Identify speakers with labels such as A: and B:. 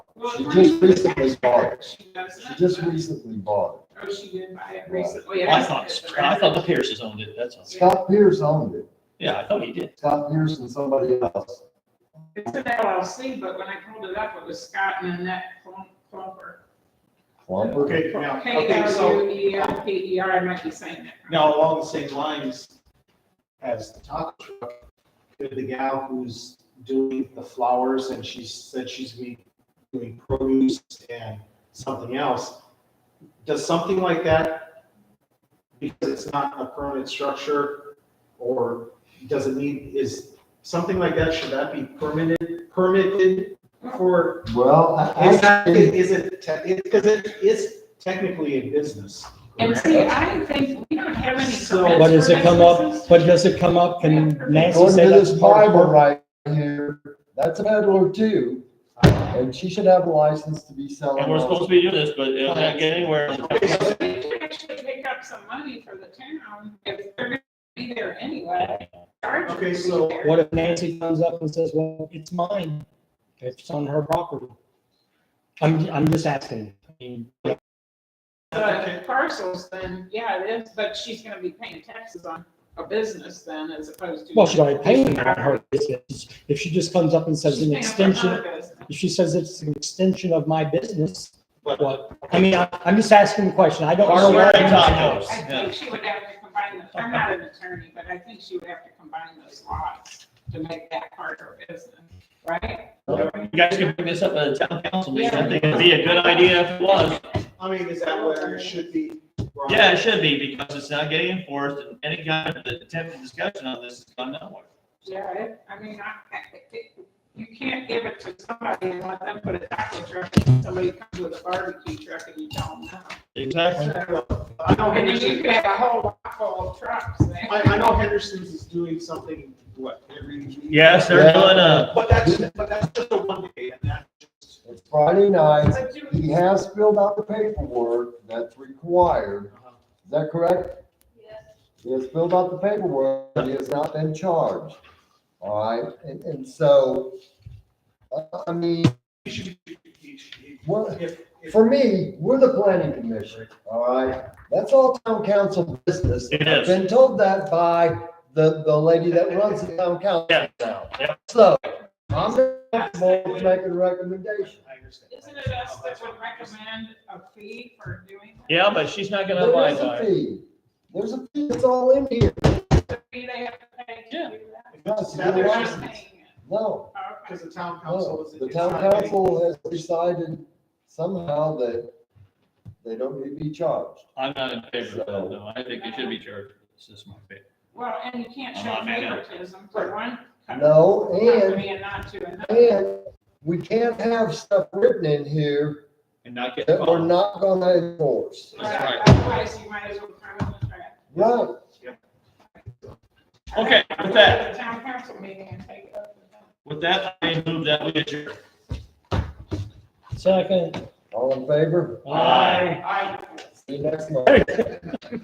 A: She just recently bought it.
B: She knows
A: She
B: that.
A: just recently bought
B: Oh, she did buy it
A: Right.
B: recently.
C: I thought, I thought the Pierces owned it, that's all.
A: it. Scott Pierce owned it.
C: Yeah, I thought he did.
A: Scott Pierce and somebody else.
B: It's an LLC, but when I pulled it up, it was Scott and Annette Clum- Clumper.
A: Clumper.
D: Okay, now,
B: K
D: okay, so
B: W E L P E R, I might be saying that. wrong.
D: now along the same lines as the taco truck, could the gal who's doing the flowers and she said she's gonna be doing produce and something else, does something like that, because it's not a permanent structure or does it need, is something like that, should that be permitted, permitted for,
A: Well, I-
D: is that,
A: actually,
D: is it, because it is technically a business.
B: And see, I think we don't have any.
D: So-
B: permits
E: But does
B: for
E: it come up,
B: businesses.
E: but does it come up, can Nancy
A: according
E: say
A: to
E: that's
A: this
E: part of
A: Bible
E: her?
A: right here, that's a peddler too, and she should have a license to be selling.
C: And we're supposed to be doing this, but it doesn't get anywhere.
B: We could actually pick up some money for the town if they're gonna be there anyway. Charge them to
D: Okay,
B: be
D: so
B: there.
E: What if Nancy comes up and says, well, it's mine, it's on her property? I'm, I'm just asking. I mean, like,
B: The parcels, then, yeah, it is, but she's gonna be paying taxes on a business then as opposed to.
E: Well, she's already paying on her business. If she just comes up and says
B: She's
E: an
B: paying for her
E: extension,
B: business.
E: if she says it's an extension of my business,
D: But-
E: what? I mean, I- I'm just asking a question. I don't.
C: Or
E: I don't know.
C: wearing tacos.
B: I think she would have to combine, the- I'm not an attorney, but I think she would have to combine those lots to make that part of her business, right?
C: You guys can bring this up at the town council meeting. I think it'd be a good idea if it was.
D: I mean, is that where it should be? Ron?
C: Yeah, it should be because it's not getting enforced and any kind of attempted discussion on this has gone nowhere.
B: Yeah, it- I mean, I, I- it- you can't give it to somebody and let them put a taco truck, and somebody comes with a barbecue truck and you don't know.
C: Exactly.
D: I know
B: Oh, And then you
D: Henderson,
B: could have a whole lot full of trucks there.
D: I, I know Henderson's is doing something, what, every week?
C: Yes, they're doing a,
D: But that's, but that's just a one day, and that just.
A: It's Friday night.
B: But you-
A: He has filled out the paperwork that's required. Is that correct? Yes. He has filled out the paperwork, but he has not been charged. All right, and, and so, I- I mean,
D: you should- you should-
A: What?
D: If, if,
A: for me, we're the planning commission, all right? That's all town council business.
C: It
A: I've
C: is.
A: Been told that by the, the lady that runs the town council
C: Yeah.
A: now.
C: Yeah.
A: So, I'm going to make a recommendation.
D: I understand.
B: Isn't it us that would recommend a fee for doing? that?
C: yeah, but she's not gonna
A: There
C: abide
A: is
C: by
A: a
C: it.
A: fee. There's a fee, it's all in here.
B: The fee they have to pay to
C: Yeah.
B: do that.
A: That's
D: That
A: the
B: They're
A: right.
B: just
D: reason,
B: paying it.
A: No,
B: Okay.
D: Because the town council
A: no,
D: is.
A: Oh, the
D: it's
A: town
D: not getting-
A: council has decided somehow that they don't need to be charged.
C: I'm not in favor of that, though. I think it should be charged. This is my opinion.
B: Well, and you can't
C: I'm
B: show
C: not mad at it.
B: favoritism for one company
A: No, and,
B: and not to another.
A: and we can't have stuff written in here
C: And not get
A: that we're
C: involved.
A: not gonna enforce.
C: That's right.
B: Otherwise, you might as well throw in the trash.
A: Right,
C: Okay, with that.
B: The Town council meeting and take it up. with them.
C: With that, I move that we adjourn.
E: Second.
A: all in favor?
C: Aye.
B: I-
A: See you next month.